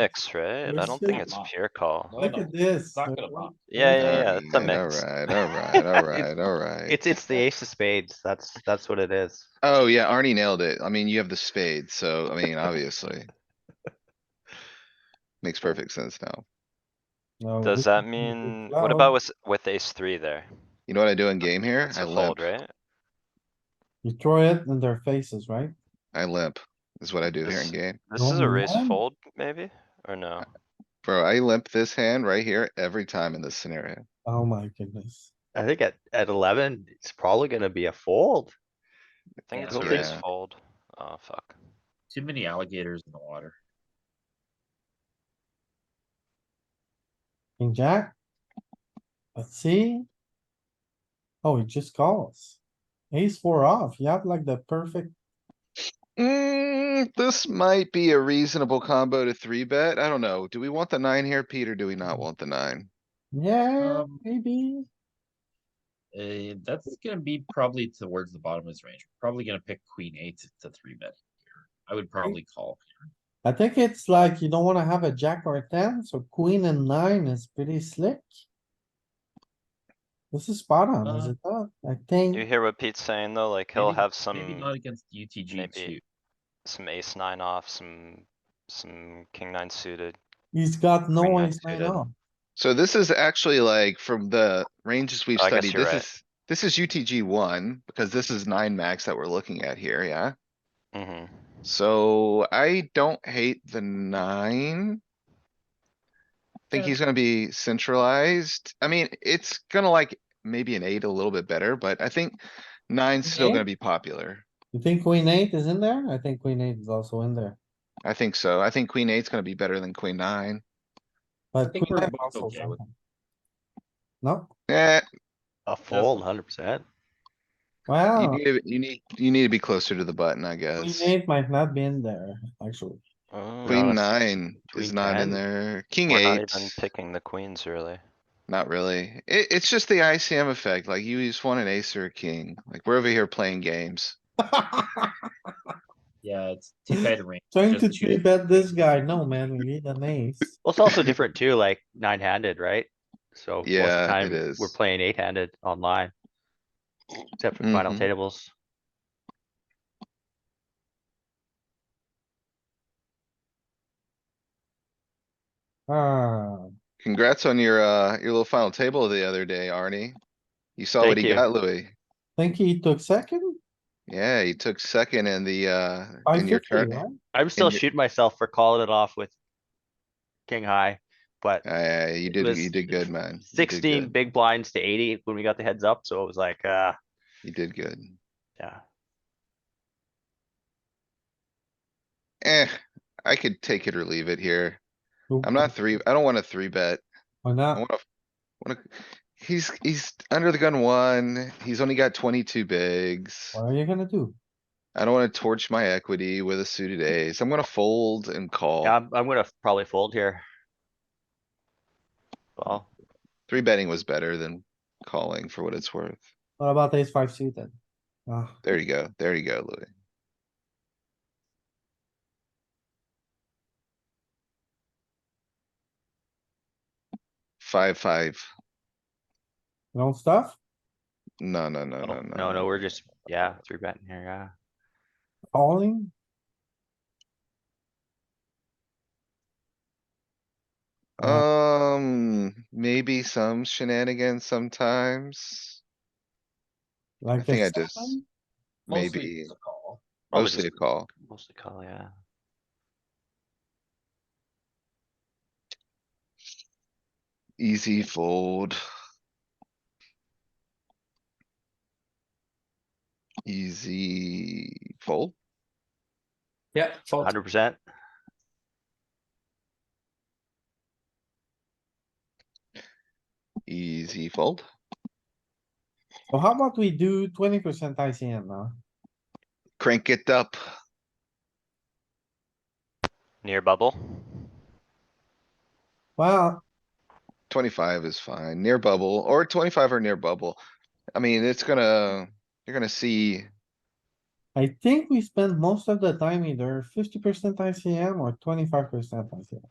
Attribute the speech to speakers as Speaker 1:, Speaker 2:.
Speaker 1: mix, right? I
Speaker 2: We're
Speaker 1: don't think
Speaker 2: still
Speaker 1: it's
Speaker 3: not.
Speaker 1: pure call.
Speaker 3: No,
Speaker 2: Look
Speaker 3: no,
Speaker 2: at this.
Speaker 3: it's not gonna pop.
Speaker 1: Yeah, yeah, yeah, it's a
Speaker 4: Alright,
Speaker 1: mix.
Speaker 4: Alright, alright, alright, alright.
Speaker 5: It's, it's the ace of spades. That's, that's what it is.
Speaker 4: Oh, yeah, Arnie nailed it. I mean, you have the spade, so, I mean, obviously. Makes perfect sense now.
Speaker 3: Oh,
Speaker 2: No,
Speaker 1: Does
Speaker 2: this
Speaker 1: that
Speaker 2: is a big
Speaker 1: mean, what
Speaker 2: flop.
Speaker 1: about with, with ace three there?
Speaker 4: You know what I do in game here?
Speaker 1: It's
Speaker 4: I
Speaker 1: a fold,
Speaker 4: limp,
Speaker 1: right?
Speaker 2: You throw it in their faces, right?
Speaker 4: I limp, is what I do here
Speaker 1: This-
Speaker 4: in game.
Speaker 1: This is
Speaker 2: No,
Speaker 1: a raise
Speaker 2: man.
Speaker 1: fold, maybe, or
Speaker 4: Uh,
Speaker 1: no?
Speaker 4: Bro, I limp this hand right here every time in this scenario.
Speaker 2: Oh my goodness.
Speaker 5: I think at, at eleven, it's probably gonna be a fold.
Speaker 1: I think
Speaker 3: Yeah,
Speaker 1: it's
Speaker 4: I
Speaker 1: a
Speaker 4: don't
Speaker 1: raise
Speaker 4: think-
Speaker 1: fold. Oh, fuck.
Speaker 3: Too many alligators in the water.
Speaker 2: King jack? Let's see. Oh, he just calls. Ace four off. You have like the perfect,
Speaker 4: Mm, this might be a reasonable combo to three bet. I don't know. Do we want the nine here, Pete, or do we not want the nine?
Speaker 2: yeah,
Speaker 3: Um,
Speaker 2: maybe.
Speaker 3: Uh, that's gonna be probably towards the bottom of his range. Probably gonna pick queen eight to three bet here. I would probably call.
Speaker 2: I think it's like you don't wanna have a jack or a ten, so queen and nine is pretty slick. This is spot on, is
Speaker 3: Uh,
Speaker 2: it not? I
Speaker 1: You
Speaker 2: think,
Speaker 1: hear what Pete's saying though? Like he'll
Speaker 3: Maybe-
Speaker 1: have
Speaker 3: Maybe
Speaker 1: some,
Speaker 3: not against UTG
Speaker 1: maybe.
Speaker 3: too.
Speaker 1: some ace nine off, some, some king nine suited.
Speaker 2: he's got
Speaker 1: Queen
Speaker 2: no
Speaker 1: nine
Speaker 2: ace nine
Speaker 1: suited.
Speaker 2: off.
Speaker 4: So this is actually like from the ranges we've
Speaker 1: Oh, I guess
Speaker 4: studied,
Speaker 1: you're
Speaker 4: this
Speaker 1: right.
Speaker 4: is, this is UTG one, because this is nine max that we're looking at here, yeah?
Speaker 1: hmm
Speaker 4: So I don't hate the nine. Think
Speaker 3: Yeah.
Speaker 4: he's gonna be centralized. I mean, it's gonna like maybe an eight a little bit better, but I think nine's still
Speaker 2: Okay.
Speaker 4: gonna be popular.
Speaker 2: You think queen eight is in there? I think queen eight is also in there,
Speaker 4: I think so. I think queen eight's gonna be better than queen nine.
Speaker 2: but.
Speaker 3: think
Speaker 2: queen
Speaker 3: we're
Speaker 2: nine
Speaker 3: both
Speaker 2: also
Speaker 3: okay with-
Speaker 2: something. No,
Speaker 4: Eh,
Speaker 5: A fold, hundred percent.
Speaker 4: you
Speaker 2: wow,
Speaker 4: need, to- you need, you need to be closer to the button, I
Speaker 2: Oh. queen
Speaker 4: guess.
Speaker 2: eight might not be in there, actually.
Speaker 4: Queen nine is
Speaker 5: queen
Speaker 4: not
Speaker 5: 10.
Speaker 4: in there. King
Speaker 1: Mm. We're not
Speaker 4: eight,
Speaker 1: even picking the queens really.
Speaker 4: not really. It, it's just the ICM effect. Like you just want an ace or a king. Like we're over here playing games.
Speaker 3: Yeah, it's too tight a range.
Speaker 2: Trying
Speaker 3: just
Speaker 2: to
Speaker 3: two
Speaker 2: three bet this guy, no man, we need an ace.
Speaker 5: Well, it's also different too, like nine handed, right? So. most of the
Speaker 4: Yeah, it
Speaker 5: time, We're
Speaker 4: is.
Speaker 5: playing eight handed online. Except for final
Speaker 4: Mhm.
Speaker 5: tables.
Speaker 2: Ah,
Speaker 4: Congrats on your, uh, your little final table the other day, Arnie. You saw what
Speaker 5: Thank
Speaker 4: he
Speaker 5: you.
Speaker 4: got, Louis.
Speaker 2: think he took second?
Speaker 4: Yeah, he took second in the, uh, in your
Speaker 2: 550,
Speaker 4: turn.
Speaker 2: right?
Speaker 5: I'm still
Speaker 4: your-
Speaker 5: shooting myself for calling it off with king high, but
Speaker 4: Uh, you
Speaker 5: It
Speaker 4: did,
Speaker 5: was
Speaker 4: you did good, man. You did
Speaker 5: sixteen
Speaker 4: good.
Speaker 5: big blinds to eighty when we got the heads up, so it was like, uh,
Speaker 4: You did good.
Speaker 5: yeah.
Speaker 4: Eh, I could take it or leave it here.
Speaker 2: Who-
Speaker 4: I'm not three, I don't wanna three bet.
Speaker 2: Why
Speaker 4: I
Speaker 2: not?
Speaker 4: wanna, wanna, he's, he's under the gun one. He's only got twenty-two bigs.
Speaker 2: What are you gonna do?
Speaker 4: I don't wanna torch my equity with a suited ace. I'm gonna fold and call.
Speaker 5: Yeah, I'm, I'm gonna probably fold here. Well,
Speaker 4: Three betting was better than calling for what it's worth.
Speaker 2: What about ace five suited? Ah,
Speaker 4: There you go. There you go, Louis. Five, five.
Speaker 2: no stuff?
Speaker 4: No, no, no, no,
Speaker 5: oh, no,
Speaker 4: no.
Speaker 5: no, we're just, yeah, three betting here, yeah.
Speaker 2: Calling?
Speaker 4: Um, maybe some shenanigans sometimes.
Speaker 2: Like
Speaker 4: I think
Speaker 2: a
Speaker 4: I just-
Speaker 2: seven?
Speaker 3: Mostly
Speaker 4: Maybe.
Speaker 3: it's a call.
Speaker 5: Probably
Speaker 4: Mostly a
Speaker 5: just-
Speaker 4: call.
Speaker 5: Mostly call, yeah.
Speaker 4: Easy fold. Easy fold.
Speaker 3: Yeah. fold.
Speaker 5: Hundred percent.
Speaker 4: Easy fold.
Speaker 2: So how about we do twenty percent ICM now?
Speaker 4: Crank it up.
Speaker 1: Near bubble?
Speaker 2: Well,
Speaker 4: Twenty-five is fine, near bubble, or twenty-five or near bubble. I mean, it's gonna, you're gonna see,
Speaker 2: I think we spend most of the time either fifty percent ICM or twenty-five percent ICM.